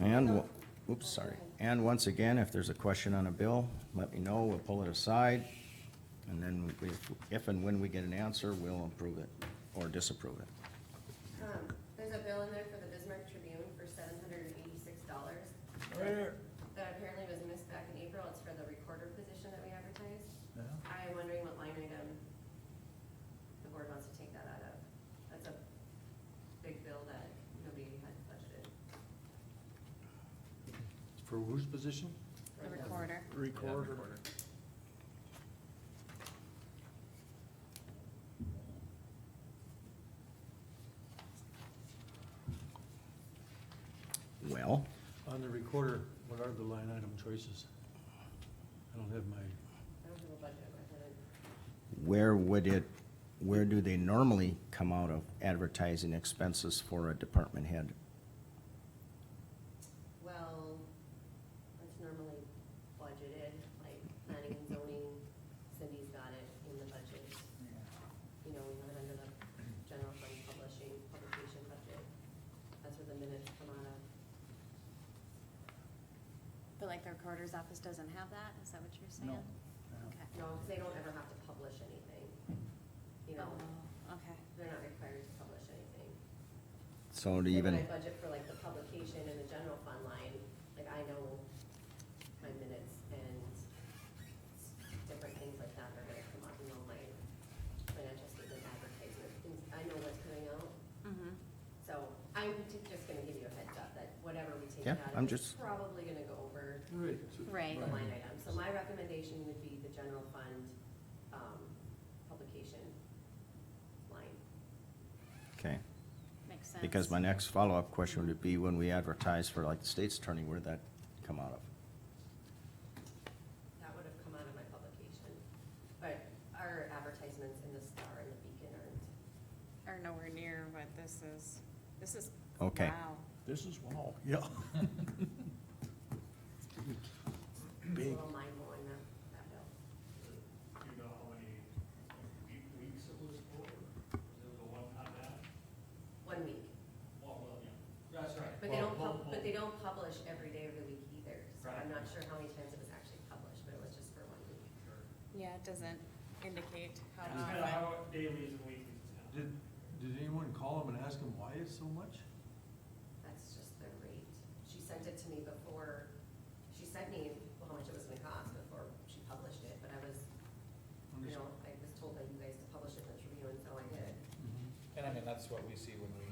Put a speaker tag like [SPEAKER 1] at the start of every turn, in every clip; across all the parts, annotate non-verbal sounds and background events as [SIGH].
[SPEAKER 1] And, wo- oops, sorry. And once again, if there's a question on a bill, let me know, we'll pull it aside. And then we- if and when we get an answer, we'll approve it or disapprove it.
[SPEAKER 2] Um, there's a bill in there for the Bismarck Tribune for seven hundred and eighty-six dollars. That apparently was missed back in April, it's for the recorder position that we advertised. I'm wondering what line item the board wants to take that out of. That's a big bill that nobody had budgeted.
[SPEAKER 3] For whose position?
[SPEAKER 2] The recorder.
[SPEAKER 3] Recorder.
[SPEAKER 1] Well,
[SPEAKER 3] On the recorder, what are the line item choices? I don't have my,
[SPEAKER 2] I don't have a budget with it.
[SPEAKER 1] where would it, where do they normally come out of advertising expenses for a department head?
[SPEAKER 2] Well, it's normally budgeted, like planning and zoning, Cindy's got it in the budget. You know, we have it under the general fund publishing, publication budget. That's where the minutes come out of.
[SPEAKER 4] But like the recorder's office doesn't have that, is that what you're saying? Okay.
[SPEAKER 2] No, because they don't ever have to publish anything. You know,
[SPEAKER 4] Oh, okay.
[SPEAKER 2] they're not required to publish anything.
[SPEAKER 1] So to
[SPEAKER 2] And
[SPEAKER 1] even.
[SPEAKER 2] When I budget for like the publication and the general fund line, like I know my minutes and different things like that are gonna come up, you know, my financial statement advertisement, things, I know what's coming out.
[SPEAKER 4] Mm-hmm.
[SPEAKER 2] So I'm ju- just gonna give you a heads up that whatever we take
[SPEAKER 1] Yeah,
[SPEAKER 2] out
[SPEAKER 1] I'm
[SPEAKER 2] of is
[SPEAKER 1] just-
[SPEAKER 2] probably gonna go over
[SPEAKER 3] right.
[SPEAKER 4] Right.
[SPEAKER 2] the line item. So my recommendation would be the general fund, um, publication line.
[SPEAKER 1] Okay,
[SPEAKER 4] Makes sense.
[SPEAKER 1] because my next follow-up question would be when we advertise for like the state's attorney, where'd that come out of?
[SPEAKER 2] That would have come out of my publication, but our advertisements in the Star and the Beacon aren't.
[SPEAKER 4] Are nowhere near what this is, this is.
[SPEAKER 1] Okay.
[SPEAKER 4] Wow.
[SPEAKER 3] This is wow. Yeah.
[SPEAKER 2] I'm A
[SPEAKER 3] Big.
[SPEAKER 2] little mindful on that, that bill.
[SPEAKER 5] Do you know how many week- weeks it was for? Was it a one-time ad?
[SPEAKER 2] One week.
[SPEAKER 5] Well, well, yeah. That's right.
[SPEAKER 2] But they don't, pub- but they don't publish every day of the week either, so I'm
[SPEAKER 5] Right.
[SPEAKER 2] not sure how many times it was actually published, but it was just for one week.
[SPEAKER 4] Yeah, it doesn't indicate how
[SPEAKER 5] It's kind of
[SPEAKER 4] often.
[SPEAKER 5] how dailies and weeklies now.
[SPEAKER 3] Did, did anyone call him and ask him why it's so much?
[SPEAKER 2] That's just the rate. She sent it to me before, she sent me how much it was gonna cost before she published it, but I was, you know, I was told by you guys to publish it in the Tribune, and so I did.
[SPEAKER 3] Mhm.
[SPEAKER 6] And I mean, that's what we see when we,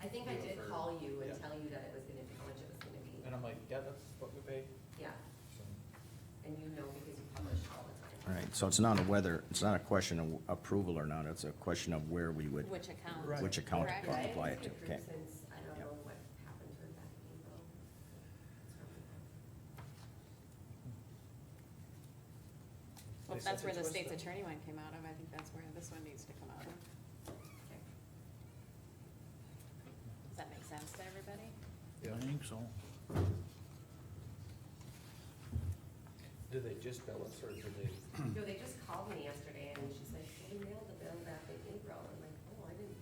[SPEAKER 2] I think I did call you and
[SPEAKER 6] Yeah.
[SPEAKER 2] tell you that it was gonna be, how much it was gonna be.
[SPEAKER 6] and I'm like, yeah, that's what we pay.
[SPEAKER 2] Yeah,
[SPEAKER 6] So,
[SPEAKER 2] and you know because you publish all the time.
[SPEAKER 1] All right, so it's not a whether, it's not a question of approval or not, it's a question of where we would,
[SPEAKER 4] Which account?
[SPEAKER 3] Right.
[SPEAKER 1] which account
[SPEAKER 4] Correct.
[SPEAKER 2] Yeah, I
[SPEAKER 1] apply it
[SPEAKER 2] haven't
[SPEAKER 1] to,
[SPEAKER 2] seen it
[SPEAKER 1] okay?
[SPEAKER 2] Since, I don't
[SPEAKER 1] Yep.
[SPEAKER 2] know what happened to it back in April. It's probably-
[SPEAKER 4] Well, if
[SPEAKER 6] They
[SPEAKER 4] that's
[SPEAKER 6] said
[SPEAKER 4] where the
[SPEAKER 6] it was
[SPEAKER 4] state's
[SPEAKER 6] the-
[SPEAKER 4] attorney one came out of, I think that's where this one needs to come out of.
[SPEAKER 2] okay.
[SPEAKER 4] Does that make sense to everybody?
[SPEAKER 6] Yeah.
[SPEAKER 7] think so.
[SPEAKER 6] Do they just bill us or do they?
[SPEAKER 2] No, they just called me yesterday and she's like, we mailed the bill back in April. I'm like, oh, I didn't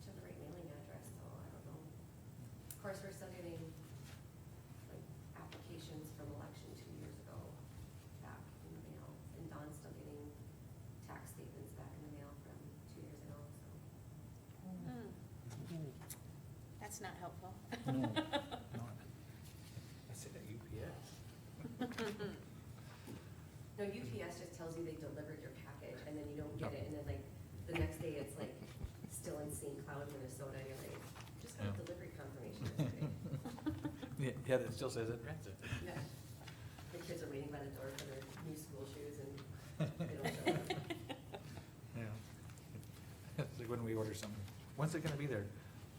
[SPEAKER 2] check the right mailing address, so I don't know. Of course, we're still getting like applications from election two years ago back in the mail. And Don's still getting tax statements back in the mail from two years ago, so.
[SPEAKER 4] Hmm. That's not helpful.
[SPEAKER 7] No, not.
[SPEAKER 6] I said that UPS. [LAUGHS]
[SPEAKER 2] No, UPS just tells you they delivered your package and then you don't get it. And then like the next day, it's like still in St. Cloud, Minnesota. and You're like, just got
[SPEAKER 6] Yeah.
[SPEAKER 2] delivery confirmation
[SPEAKER 6] [LAUGHS]
[SPEAKER 2] yesterday.
[SPEAKER 6] Yeah, yeah, that still says it rents it.
[SPEAKER 2] Yeah. The kids are waiting by the door for their new school shoes and [LAUGHS] they don't show up.
[SPEAKER 6] [LAUGHS]
[SPEAKER 4] [LAUGHS]
[SPEAKER 6] Yeah. It's like when we order something, when's it gonna be there?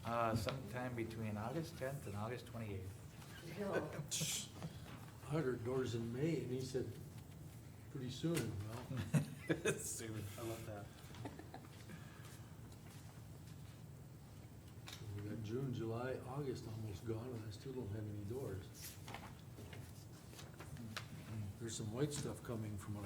[SPEAKER 6] Uh, sometime between August tenth and August [LAUGHS] twenty-eighth.
[SPEAKER 2] No,
[SPEAKER 3] A Hundred doors in May, and he said, pretty soon,
[SPEAKER 6] Hmm.
[SPEAKER 3] well.
[SPEAKER 6] Soon. I love that.
[SPEAKER 3] We got June, July, August almost gone, and I still don't
[SPEAKER 6] Mm-hmm.
[SPEAKER 3] have any doors. There's some white stuff coming from what I